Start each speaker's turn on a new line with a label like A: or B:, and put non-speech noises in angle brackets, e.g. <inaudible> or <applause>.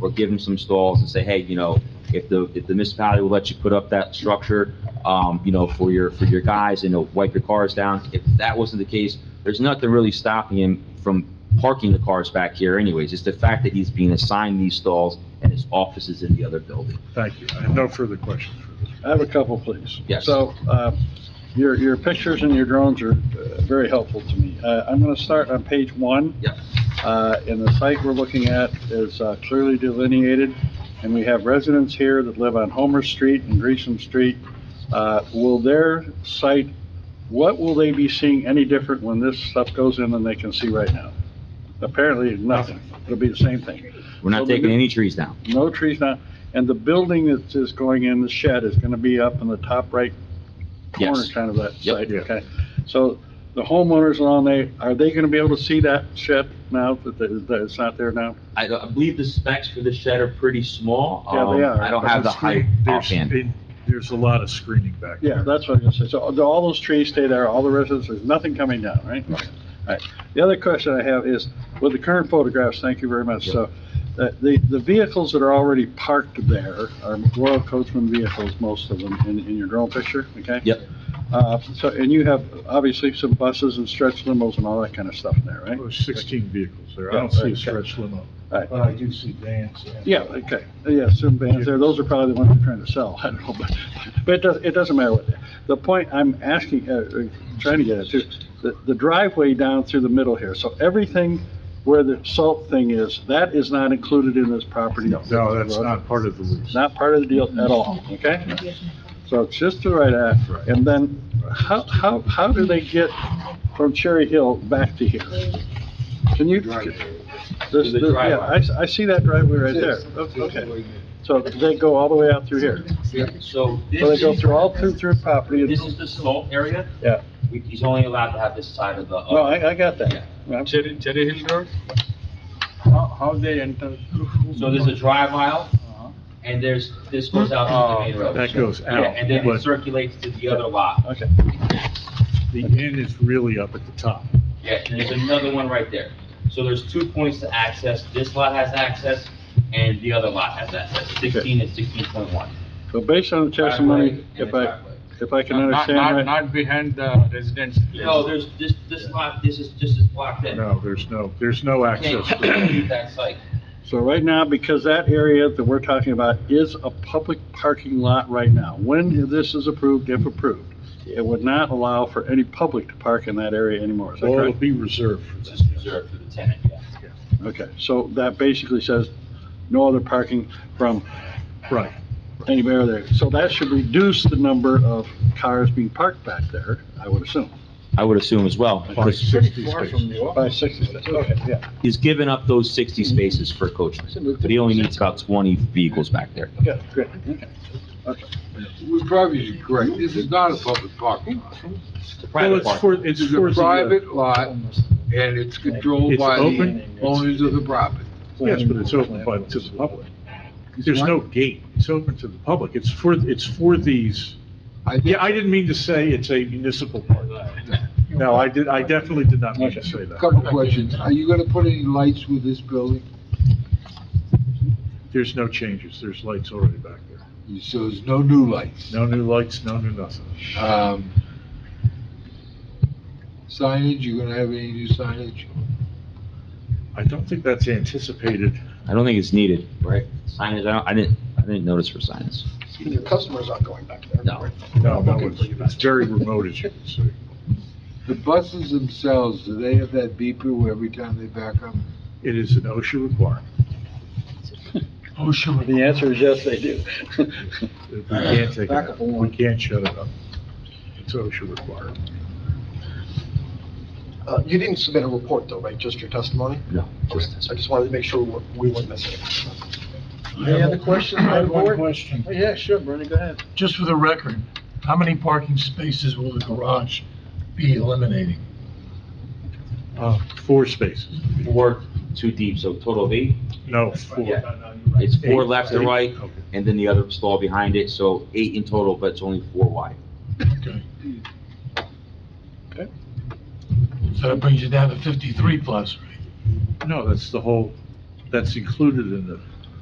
A: or give them some stalls and say, hey, you know, if the, if the municipality will let you put up that structure, um, you know, for your, for your guys, and know, wipe your cars down. If that wasn't the case, there's nothing really stopping him from parking the cars back here anyways. It's the fact that he's being assigned these stalls and his office is in the other building.
B: Thank you. I have no further questions.
C: I have a couple, please.
A: Yes.
C: So, uh, your, your pictures and your drones are uh, very helpful to me. Uh, I'm gonna start on page one.
A: Yep.
C: Uh, and the site we're looking at is uh, clearly delineated, and we have residents here that live on Homer Street and Gresham Street. Uh, will their site, what will they be seeing any different when this stuff goes in than they can see right now? Apparently, nothing. It'll be the same thing.
A: We're
C: So
A: not
C: the
A: taking
C: new-
A: any trees down.
C: No trees now, and the building that is going in, the shed, is gonna be up in the top right corner,
A: Yes.
C: kind of that
A: Yep.
C: site,
B: Yeah.
C: okay? So the homeowners along there, are they gonna be able to see that shed now, that, the- that it's not there now?
A: I, I believe the specs for the shed are pretty small.
C: Yeah,
A: Um,
C: they are.
A: I don't have the height
B: There's-
A: offhand.
B: it- There's a lot of screening back there.
C: Yeah, that's what I'm gonna say, so do all those trees stay there, all the residents, there's nothing coming down, right? Alright, the other question I have is, with the current photographs, thank you very much, so, uh, the, the vehicles that are already parked there are Royal Coachman vehicles, most of them, in, in your drone picture, okay?
A: Yep.
C: Uh, so, and you have obviously some buses and stretch limos and all that kind of stuff in there, right?
B: There's 16 Oh, vehicles there. I
C: Yeah,
B: don't see
C: okay.
B: a stretch Uh, limo.
C: Right.
D: Well, I do see vans, yeah.
C: Yeah, okay, yeah, some vans there, those are probably the ones they're trying to sell, <laughs> I don't know, but, but it doesn't, it doesn't matter what, the point I'm asking, uh, uh, trying to get at too, the, the driveway down through the middle here, so everything where the salt thing is, that is not included in this property?
B: No, that's not part of the lease.
C: Not part of the deal at all, okay? So it's just the right act,
B: Right.
C: and then how, how, how do they get from Cherry Hill back to here? Can you? This,
A: the
C: this- yeah,
A: driveway.
C: I, s- I see that driveway right there, O- okay. So they go all the way out through here?
A: So
C: So they
A: this
C: go
A: is,
C: through all through, through property? and-
A: this is the salt area.
C: Yeah.
A: We- He's only allowed to have this side of the.
C: No, I, I got that. I'm-
E: Cherry, Cherry Hill Road? How, how they enter?
A: So there's a drive aisle and there's, this goes out to the main road.
B: Oh, That goes
A: Yeah,
B: out,
A: And then it
B: but-
A: circulates to the other lot.
C: Okay,
B: The inn is really up at the top.
A: Yeah, and there's another one right there. So there's two points to access. This lot has access and the other lot has access, 16 and 16.1.
C: so based on the
A: Driveway
C: testimony,
A: and
C: if
A: the
C: I,
A: driveway.
C: if I can
E: Not, not,
C: understand right,
E: not behind the residence. place.
A: No, there's, this, this lot, this is, this is blocked in.
B: No, there's no, there's no access.
A: Can't
B: to
A: can't
B: that.
A: leave that site.
C: so right now, because that area that we're talking about is a public parking lot right now. When this is approved, if approved, it would not allow for any public to park in that area anymore, is that
B: Or
C: correct?
B: it'll be reserved for
A: It's
B: this.
A: just reserved for the tenant, yeah.
C: Okay, so that basically says no other parking from
B: Right.
C: anywhere there. So that should reduce the number of cars being parked back there, I would assume,
A: I would assume as well,
B: By
A: because
B: 60
D: Far
B: spaces.
D: from the office.
C: by 60. Okay, yeah,
A: he's given up those 60 spaces for coachmen. But he only needs about 20 vehicles back there.
C: good, good.
F: We're probably correct, this is not a public parking lot.
A: It's a
B: Well,
A: private
B: it's
A: park.
B: for, it's
F: It's
B: for
F: a
B: the, uh,
F: private lot, and it's controlled
B: It's
F: by the
B: open?
F: owners of the property.
B: yes, but it's open by, to the public. There's no gate. It's open to the public. It's for, it's for these.
F: I think-
B: Yeah, I didn't mean to say it's a municipal park. No, I did, I definitely did not mean to say that.
F: Couple questions, are you gonna put any lights with this building?
B: There's no changes. There's lights already back there.
F: So there's no new lights?
B: No new lights, no new nothing. Uh,
F: Um, Signage, you gonna have any new signage?
B: I don't think that's anticipated.
A: I don't think it's needed, right? Signage, I don't, I didn't, I didn't notice for signage.
D: Your customers aren't going back there.
A: No.
B: No, no, it's, it's very remote, as you can see.
F: The buses themselves, do they have that beeper where every time they back up?
B: It is an OSHA requirement.
F: Oh, sure.
C: The answer is yes, they do.
B: We can't take it
D: Back
B: out.
D: up
B: We
D: along.
B: can't shut it up. It's OSHA required.
D: Uh, You didn't submit a report though, right? Just your testimony?
A: No,
D: Okay.
A: just this.
D: I just wanted to make sure we weren't- we weren't missing. it.
C: Any other questions
G: I
C: by the
G: have one
C: board? Oh,
G: question.
C: Yeah, sure, Bernie, go ahead.
G: Just for the record, how many parking spaces will the garage be eliminating?
B: Uh, four spaces.
A: Four, two deep, so total of eight.
B: No, four.
A: It's four left to
B: Eight.
A: right,
B: Okay.
A: and then the other stall behind it, so eight in total, but it's only four wide.
G: Okay.
C: Okay.
G: So that brings you down to 53 plus, right?
B: No, that's the whole, that's included in the